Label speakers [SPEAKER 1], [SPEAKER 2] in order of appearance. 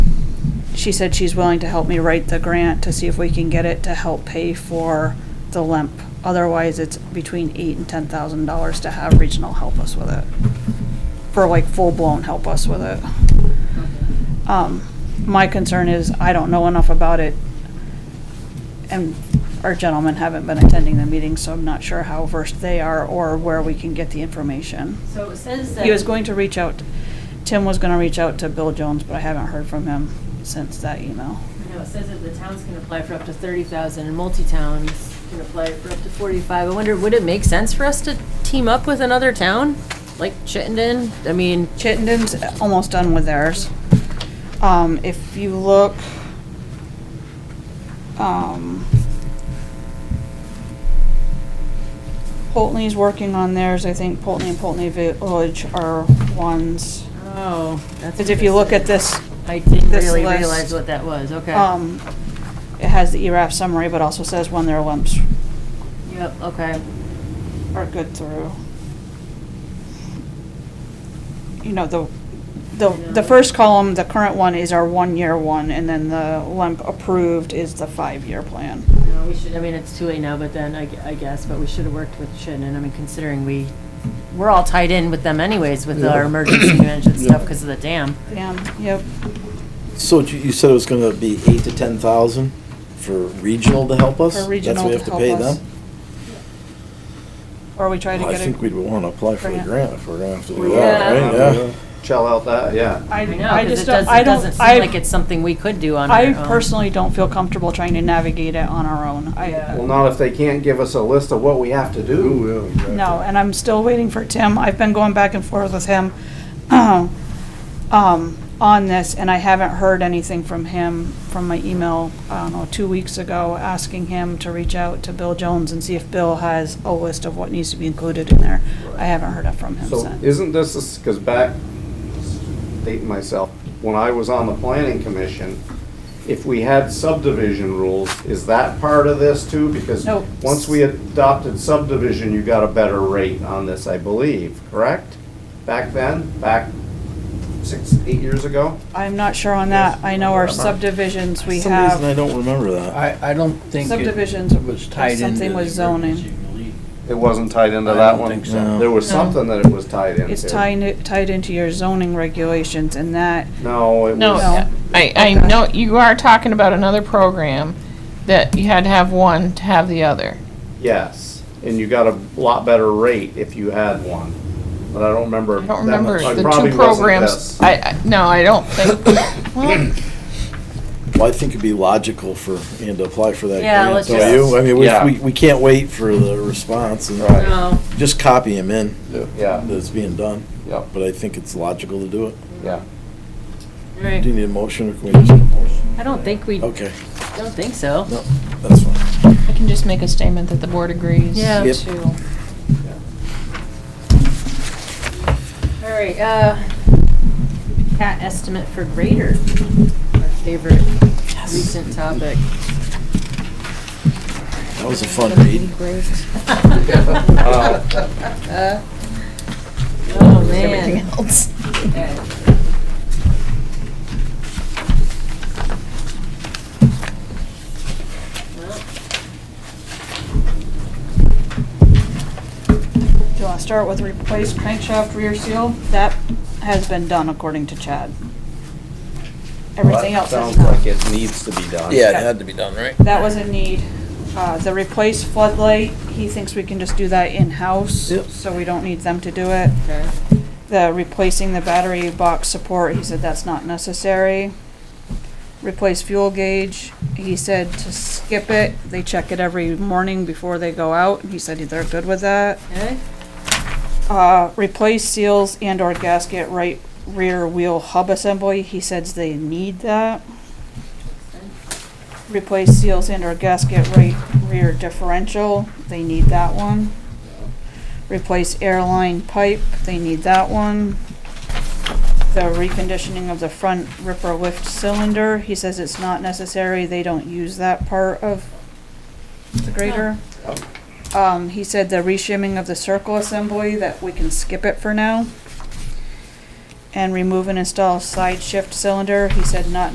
[SPEAKER 1] she said she's willing to help me write the grant to see if we can get it to help pay for the LEMP. Otherwise, it's between eight and ten thousand dollars to have regional help us with it. For like full-blown help us with it. Um, my concern is I don't know enough about it. And our gentlemen haven't been attending the meetings, so I'm not sure how versed they are or where we can get the information.
[SPEAKER 2] So it says that.
[SPEAKER 1] He was going to reach out, Tim was gonna reach out to Bill Jones, but I haven't heard from him since that email.
[SPEAKER 2] I know, it says that the towns can apply for up to thirty thousand, and multi-towns can apply for up to forty-five. I wonder, would it make sense for us to team up with another town, like Chittenden? I mean,
[SPEAKER 1] Chittenden's almost done with theirs. Um, if you look, um, Pulteney's working on theirs, I think Pulteney and Pulteney Village are ones.
[SPEAKER 2] oh, that's.
[SPEAKER 1] Cause if you look at this,
[SPEAKER 2] I didn't
[SPEAKER 1] this
[SPEAKER 2] really
[SPEAKER 1] list-
[SPEAKER 2] realize what that was, okay.
[SPEAKER 1] um, it has the E ERAF summary, but also says when their lumps
[SPEAKER 2] Yep, okay.
[SPEAKER 1] are good through. You know, the, the, the first column, the current one is our one-year one, and then the LEMP approved is the five-year plan.
[SPEAKER 2] No, we should, I mean, it's too late now, but then, I, gu- I guess, but we should have worked with Chittenden, I mean, considering we, we're all tied in with them anyways, with our
[SPEAKER 3] Yeah.
[SPEAKER 2] emergency management
[SPEAKER 3] Yeah.
[SPEAKER 2] stuff because of the dam.
[SPEAKER 1] Yeah, yep,
[SPEAKER 3] So you you said it was gonna be eight to ten thousand for regional to help us?
[SPEAKER 1] for regional to help
[SPEAKER 3] That's what we have to pay
[SPEAKER 1] us.
[SPEAKER 3] them?
[SPEAKER 1] Or we try to
[SPEAKER 3] Well, I
[SPEAKER 1] get
[SPEAKER 3] think
[SPEAKER 1] a,
[SPEAKER 3] we'd wanna apply for a
[SPEAKER 1] Grant.
[SPEAKER 3] grant if we're gonna have to do that,
[SPEAKER 2] Yeah.
[SPEAKER 3] right? Yeah.
[SPEAKER 4] Shell out that, yeah.
[SPEAKER 1] I,
[SPEAKER 2] I know,
[SPEAKER 1] I
[SPEAKER 2] 'cause
[SPEAKER 1] just
[SPEAKER 2] it
[SPEAKER 1] don't,
[SPEAKER 2] doesn't,
[SPEAKER 1] I
[SPEAKER 2] it doesn't
[SPEAKER 1] don't,
[SPEAKER 2] seem like
[SPEAKER 1] I,
[SPEAKER 2] it's something we could do on our
[SPEAKER 1] I
[SPEAKER 2] own.
[SPEAKER 1] personally don't feel comfortable trying to navigate it on our own.
[SPEAKER 4] Well,
[SPEAKER 1] I,
[SPEAKER 4] not if they can't give us a list of what we have to do.
[SPEAKER 1] no, and I'm still waiting for Tim. I've been going back and forth with him, um, on this, and I haven't heard anything from him, from my email, I don't know, two weeks ago, asking him to reach out to Bill Jones and see if Bill has a list of what needs to be included in there. I haven't heard it from him
[SPEAKER 4] So
[SPEAKER 1] since.
[SPEAKER 4] isn't this, because back, dating myself, when I was on the planning commission, if we had subdivision rules, is that part of this too? Because
[SPEAKER 1] Nope.
[SPEAKER 4] once we adopted subdivision, you got a better rate on this, I believe, correct? Back then, back six, eight years ago?
[SPEAKER 1] I'm not sure on that. I know our subdivisions, we
[SPEAKER 3] For some reason, I
[SPEAKER 1] have,
[SPEAKER 3] don't remember that.
[SPEAKER 5] I, I don't think
[SPEAKER 1] Subdivisions
[SPEAKER 5] it was tied into.
[SPEAKER 1] something
[SPEAKER 5] the
[SPEAKER 1] with zoning.
[SPEAKER 5] emergency relief.
[SPEAKER 4] It wasn't tied into
[SPEAKER 5] I
[SPEAKER 4] that
[SPEAKER 5] don't
[SPEAKER 4] one?
[SPEAKER 5] think
[SPEAKER 3] so. No.
[SPEAKER 4] There was
[SPEAKER 1] No.
[SPEAKER 4] something that it was tied into.
[SPEAKER 1] it's tied, tied into your zoning regulations and that,
[SPEAKER 4] No, it was.
[SPEAKER 6] No,
[SPEAKER 1] No.
[SPEAKER 6] I, I know, you are talking about another program that you had to have one to have the other.
[SPEAKER 4] Yes, and you got a lot better rate if you had one, but I don't remember.
[SPEAKER 6] I don't
[SPEAKER 4] that
[SPEAKER 6] remember
[SPEAKER 4] much. It
[SPEAKER 6] the
[SPEAKER 4] probably
[SPEAKER 6] two
[SPEAKER 4] wasn't
[SPEAKER 6] programs.
[SPEAKER 4] this.
[SPEAKER 6] I, I, no, I don't think, well,
[SPEAKER 3] Well, I think it'd be logical for Ian to apply for that
[SPEAKER 2] Yeah,
[SPEAKER 3] grant,
[SPEAKER 2] let's
[SPEAKER 3] don't
[SPEAKER 2] just-
[SPEAKER 3] you? I mean,
[SPEAKER 4] Yeah.
[SPEAKER 3] we- we, we can't wait for the response and
[SPEAKER 4] Right.
[SPEAKER 2] No,
[SPEAKER 3] just copy him in
[SPEAKER 4] Yeah,
[SPEAKER 3] that it's being done,
[SPEAKER 4] yeah,
[SPEAKER 3] but I think it's logical to do it.
[SPEAKER 4] yeah.
[SPEAKER 2] all
[SPEAKER 3] Do you
[SPEAKER 2] right.
[SPEAKER 3] need a motion or can we just,
[SPEAKER 2] I don't think we,
[SPEAKER 3] okay,
[SPEAKER 2] don't think so.
[SPEAKER 3] no, that's fine.
[SPEAKER 6] I can just make a statement that the board agrees.
[SPEAKER 2] Yeah.
[SPEAKER 3] Yep.
[SPEAKER 6] To
[SPEAKER 2] All right, uh, cat estimate for grader, our favorite recent topic.
[SPEAKER 3] That was a fun read.
[SPEAKER 2] Uh, Oh,
[SPEAKER 6] everything
[SPEAKER 2] man.
[SPEAKER 6] else.
[SPEAKER 2] Okay. Well,
[SPEAKER 1] do you want to start with replace crankshaft rear seal? That has been done according to Chad. Everything
[SPEAKER 4] Well,
[SPEAKER 1] else
[SPEAKER 4] that
[SPEAKER 1] is
[SPEAKER 4] Sounds
[SPEAKER 1] not.
[SPEAKER 4] like it needs to be done.
[SPEAKER 3] Yeah, it had to be done, right?
[SPEAKER 1] That was a need. Uh, the replace floodlight, he thinks we can just do that in-house,
[SPEAKER 3] Yep.
[SPEAKER 1] so we don't need them to do it.
[SPEAKER 2] okay.
[SPEAKER 1] The replacing the battery box support, he said that's not necessary. Replace fuel gauge, he said to skip it. They check it every morning before they go out. He said they're good with that.
[SPEAKER 2] Okay.
[SPEAKER 1] Uh, replace seals and/or gasket right rear wheel hub assembly. He says they need that. Replace seals and/or gasket right rear differential. They need that one. Replace airline pipe. They need that one. The reconditioning of the front ripper lift cylinder. He says it's not necessary. They don't use that part of the grader. Um, he said the reshimming of the circle assembly, that we can skip it for now. And remove and install side shift cylinder, he said not